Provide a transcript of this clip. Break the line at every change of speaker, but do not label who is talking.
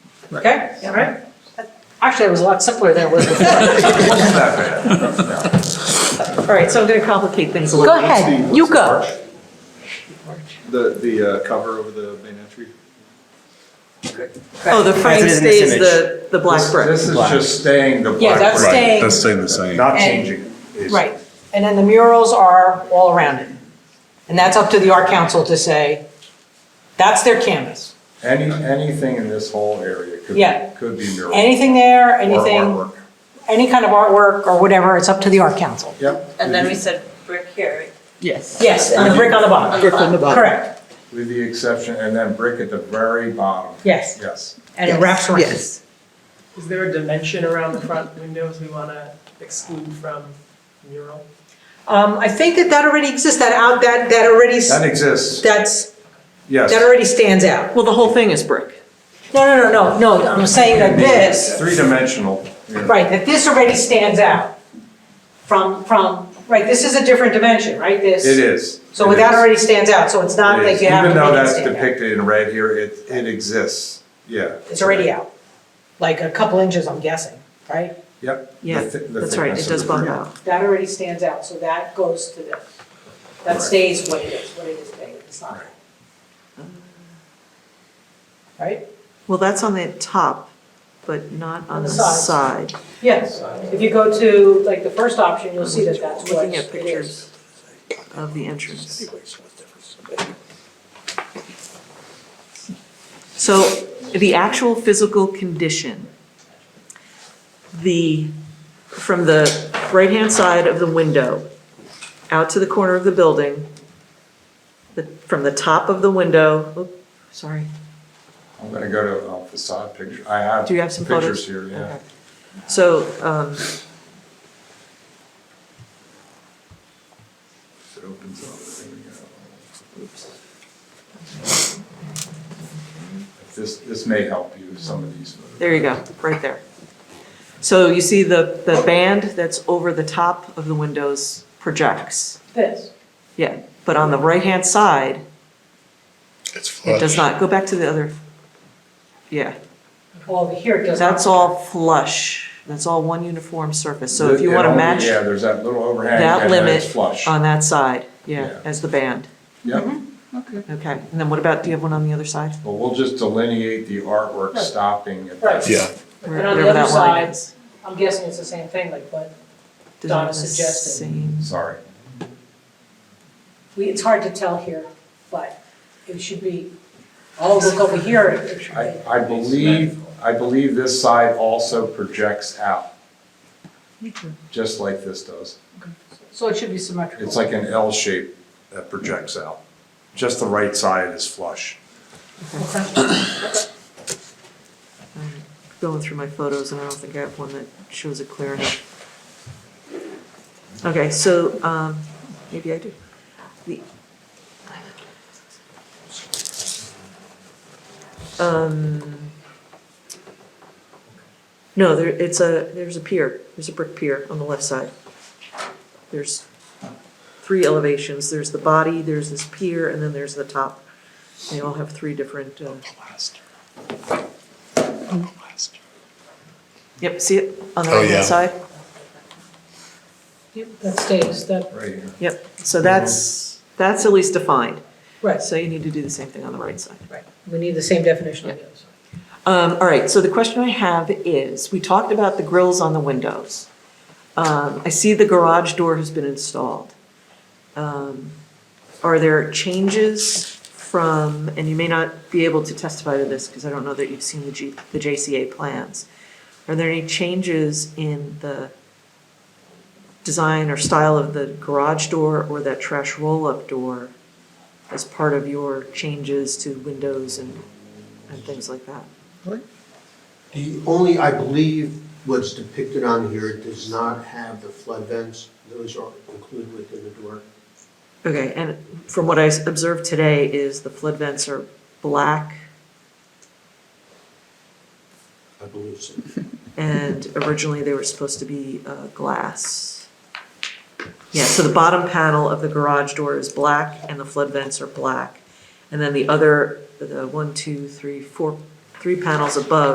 Okay, all right.
Actually, it was a lot simpler than it was before.
All right, so I'm going to complicate things a
Go
little.
ahead, you go.
The, the uh, cover over the main entry?
Oh, the
As
frame
it is in this
stays the, the black brick.
This is just staying the black.
Yeah, that's
brick,
staying,
That's staying the same.
Not
and-
changing. it. It's-
right. And then the murals are all around it. And that's up to the art council to say, that's their canvas.
Any, anything in this whole area could,
Yeah.
be- could be mural.
Anything there,
or
anything,
artwork.
any kind of artwork or whatever, it's up to the art council.
Yep.
And then we said brick here, right?
Yes.
Yes, and the brick on the bottom.
Brick on the bottom.
Correct,
With the exception, and then brick at the very bottom,
yes.
yes.
And it wraps around.
Yes.
Is there a dimension around the front windows we want to exclude from mural?
Um, I think that that already exists, that out, that, that already, s-
That exists,
that's,
yes.
that already stands out.
Well, the whole thing is brick.
No, no, no, no, no, I'm saying that this,
Three-dimensional.
right, that this already stands out from, from, right, this is a different dimension, right, this?
It is.
So
It
that
is.
already stands out, so it's not
It
like
is.
you have to
Even though
make it
that's
stand out.
depicted in red here, it, it exists, yeah.
It's already out, like a couple inches, I'm guessing, right?
Yep. the
Yeah,
thi- the
that's right,
thickness
it
of
does
the
bump
brick.
out.
That already stands out, so that goes to this. That
Right.
stays what it is, what it is big, it's not. Right?
Well, that's on the top, but not on
the
the
sides.
side.
Yes, if you go to, like, the first option, you'll see that that's what
Looking
it
at
is.
pictures of the entrance. So the actual physical condition, the, from the right-hand side of the window out to the corner of the building, the- from the top of the window, oop, sorry,
I'm gonna go to uh, facade picture, I have
Do you have some
pictures here,
photos?
yeah.
Okay. so, um,
It opens up, there we go. If This, this may help you, some of these. photos.
There you go, right there. So you see the, the band that's over the top of the windows projects.
This,
Yeah, but on the right-hand side,
It's flush.
it does not, go back to the other, yeah.
over here, it does not.
That's all flush, that's all one uniform surface, so if you
It
wanna
only-
match
Yeah, there's that little overhang
that
and then it's
limit
flush.
on Mm-hmm. that side, yeah,
Yeah.
as the band,
Yep,
okay. And then what about, do you have one on the other side?
but we'll just delineate the artwork
Right.
stopping at
Right.
that.
Yeah,
Where-
And on the
wherever
other
that line
side,
is.
I'm guessing it's the same thing, like, but
Does it have
Donna
the
suggested.
same-
Sorry,
we, it's hard to tell here, but it should be, oh, look over here, it should
I,
be.
I believe, I believe this side also projects out. Just like this does.
So it should be symmetrical.
It's like an L shape that projects out. Just the right side is flush.
Going through my photos, and I don't think I have one that shows it clear enough. Okay, so, um, maybe I do. The- Um, No, there, it's a, there's a pier, there's a brick pier on the left side. There's three elevations, there's the body, there's this pier, and then there's the top. They all have three different, uh, yep, see it on the
Oh, yeah.
right-hand side?
Yep, That stays, that,
Right here.
Yep, so that's, that's at least defined.
right,
So you need to do the same thing on the right side.
right. We need the same definition on the other side.
Um, all right, so the question I have is, we talked about the grills on the windows. Um, I see the garage door has been installed. Um, Are there changes from, and you may not be able to testify to this because I don't know that you've seen the G, the JCA plans. Are there any changes in the design or style of the garage door or that trash roll-up door as part of your changes to windows and, and things like that?
The only, I believe, what's depicted on here does not have the flood vents. Those are included within the door.
Okay, and from what I s- observed today is the flood vents are black
I believe so.
and originally they were supposed to be uh, glass. Yeah, so the bottom panel of the garage door is black and the flood vents are black. And then the other, the one, two, three, four, three panels above